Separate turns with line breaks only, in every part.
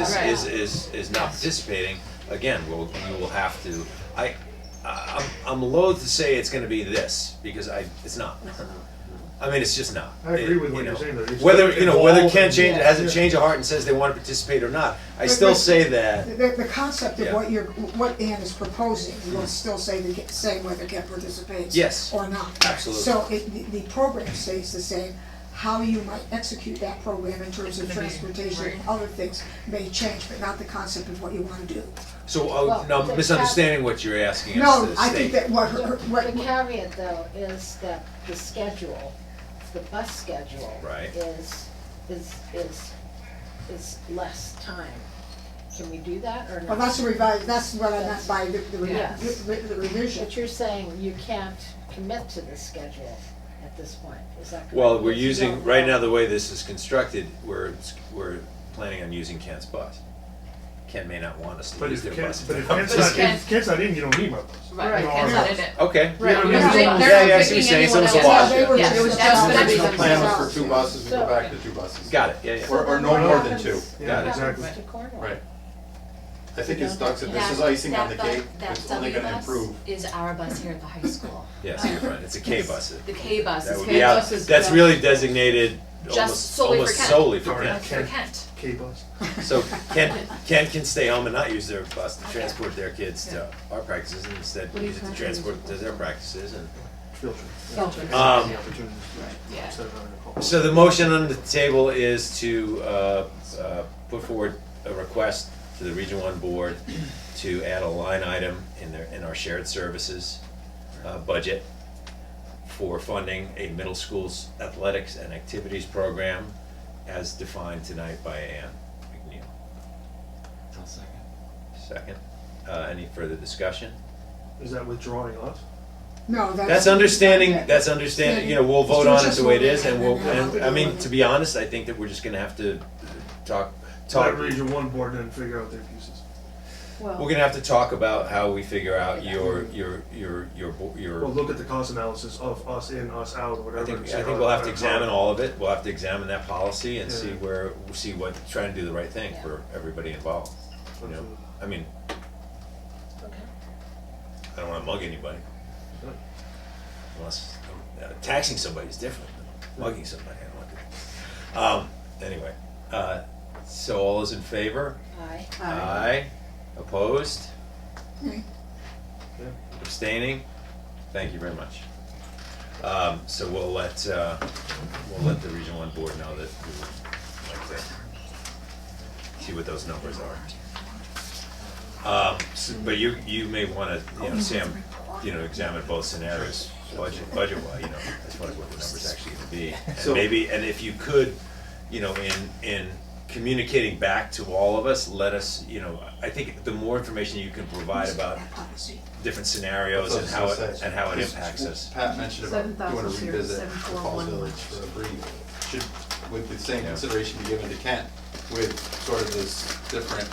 is,
Right.
is, is, is not participating, again, we'll, you will have to, I, I- I'm, I'm loath to say it's gonna be this, because I, it's not. I mean, it's just not.
I agree
It-
with what
you
you're
know,
saying, that it's
Whether, you know, whether
involved
Ken
and-
change,
Yeah.
hasn't
Yeah.
changed a heart and says they wanna participate or not, I
But-
still
but-
say that.
The, the concept
Yeah.
of what you're, what Ann is proposing, will still say the, say whether Kent participates.
Yes.
Or not.
Absolutely.
So it, the, the program stays the same, how you might execute that program in terms of
It's gonna be-
transportation and other things may change, but not the concept of what you wanna do.
So, uh,
Well,
now
the
I'm misunderstanding what you're asking us
No,
to
I think
state.
that what her, what,
The caveat though is that the schedule, the bus schedule.
Right.
Is, is, is, is less time. Can we do that or not?
well, that's a revise, that's what I meant by the, the re-
Yes.
the- the revision.
But you're saying you can't commit to the schedule at this point, is that correct?
Well, we're
Because you
using,
don't
right
know.
now, the way this is constructed, we're, we're planning on using Kent's bus. Ken may not want us to
But
use
if
their
Kent's,
bus.
but if
But
Kent's
it's
not in,
Ken-
if Kent's not in, you don't need my bus.
Right,
No,
Ken's
no.
not in it.
Okay.
You know what I mean?
Yeah,
It's
they-
all-
they're-
They're
yeah,
not
yes, you're
picking
saying
anyone
so it's a
else.
wash,
Yeah, they were-
Yes,
it was
that's
just-
gonna be
Original
the
plan
result.
was for two buses and go back to two buses.
Got it, yeah, yeah.
So
Or- or
then
no
what
more than
happens-
two.
what
Yeah,
happens
exactly.
to Cornwall?
Right. I think as Doug said, this is
That-
icing on the
that
cake,
bu- that
it's only
W
gonna
bus
improve.
Is our bus here at the high school.
Yes, you're right, it's a K bus.
The K bus
That
is
would
K
be out,
bus is-
that's really designated
Just
almost,
solely for
almost
Kent.
solely for
Sorry.
Kent.
for Kent.
K bus.
So Ken, Ken can stay home and not use their bus to transport their kids to our practices, and instead
What are you
use it to
talking
transport to their practices and,
Filter.
Filter.
um,
The opportunities.
Yeah.
Instead of having to call.
So the motion on the table is to uh, uh, put forward a request to the Region One Board to add a line item in their, in our shared services uh, budget for funding a middle school's athletics and activities program as defined tonight by Ann McNeil. second. Second. Uh, Any further discussion?
Is that withdrawing us?
No, that's.
That's understanding, that's understanding, you know, we'll vote on it the way it is and we'll,
Understanding.
and, I mean, to be honest, I think that we're just gonna have to talk, talk.
Let region one board and figure out their pieces.
We're gonna have to talk about how we figure out your, your, your, your, bo-
Well,
your,
look at the cost analysis of us in, us out, or whatever.
I think,
and
I
see
think
how
we'll
that
have to
works
examine
out.
all of it, we'll have to examine that policy and see
Yeah.
where, see what, try to do the right thing for everybody involved, you know?
Absolutely.
I mean,
Okay.
I don't wanna mug anybody.
Yep.
Unless, uh, taxing somebody is different, than mugging somebody, I don't like it. Um, anyway, uh, so all is in favor?
Aye.
Aye. Opposed?
Aye.
Yeah.
Abstaining? Thank you very much. Um, so we'll let, uh, we'll let the Region One Board know that we would like to see what those numbers are. Um, s- but you, you may wanna, you know, Sam, you know, examine both scenarios, budget, budget-wise, you know, as far as what the numbers actually gonna be.
So-
And maybe, and if you could, you know, in, in communicating back to all of us, let us, you know, I think the more information you can provide about
That policy.
different scenarios and
That's what I
how
was
it,
gonna say.
and how it
Because
impacts us.
Pat mentioned about doing a
7,000 here,
revisit of
741
Falls
one.
Village for a brief. Should, with the same consideration be given to Kent with sort of this different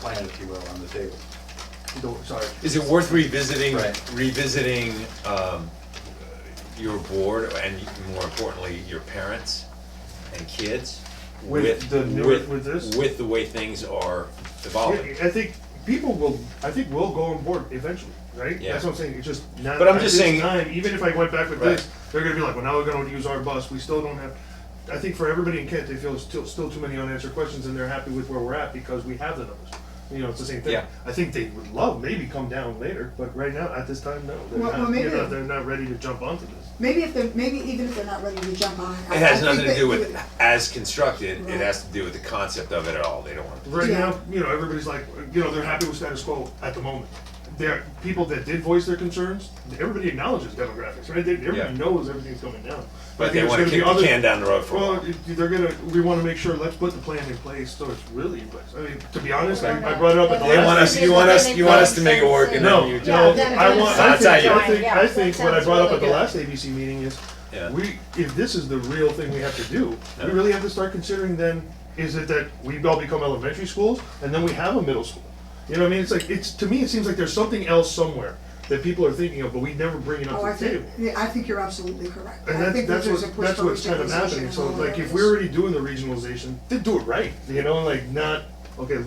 plan, if you will, on the table.
Don't- Sorry.
Is it worth revisiting,
Right.
revisiting, um, your board and more importantly, your parents and kids?
With the new-
with-
with this?
With the way things are evolving.
I think people will, I think we'll go on board eventually, right?
Yeah.
That's what I'm saying, it's just not.
But I'm
at
just
this
saying-
Time, even if I went back with this,
Right.
they're gonna be like, well, now we're gonna use our bus, we still don't have. I think for everybody in Kent, they feel still, still too many unanswered questions and they're happy with where we're at because we have the numbers. You know, it's the same thing.
Yeah.
I think they would love maybe come down later, but right now, at this time, no, they're
Well, well,
not, you
maybe-
know, they're not ready to jump onto this.
Maybe if they're, maybe even if they're not ready to jump on. I-
It has
I
nothing to
think that
do
you
with
would-
as constructed, it
Right.
has to do with the concept of it at all, they don't want.
Right
Yeah.
now, you know, everybody's like, you know, they're happy with status quo at the moment. There, people that did voice their concerns, everybody acknowledges demographics, right? They, everybody
Yeah.
knows everything's coming down. I
But
think
they
there's
wanna
gonna be
kick the
other-
can down the road for a
Well,
while.
you- they're gonna. We want to make sure. Let's put the plan in place so it's really in place. I mean, to be honest, I, I brought it up at the
They
last.
want us, you want us, you want us to make it work and
No,
then you.
no.
Yeah,
I want. I
that's how
think,
you-
I think,
Yeah,
I think
that
what I
sounds
brought up at
really
the
good.
last ABC meeting is,
Yeah.
we if this is the real thing we have to do, we
Yeah.
really have to start considering. Then is it that we all become elementary schools and then we have a middle school? You know what I mean? It's like it's to me. It seems like there's something else somewhere that people are thinking of, but we never bring it up
Oh,
to
I
the table.
think, yeah, I think you're absolutely correct.
And
I
that's,
think that
that's
there's a
what,
push
that's
for
what's kind of
regionalization
happening, so
and all
like,
that.
if we're already doing the regionalization, then do it right, you know, like not, okay,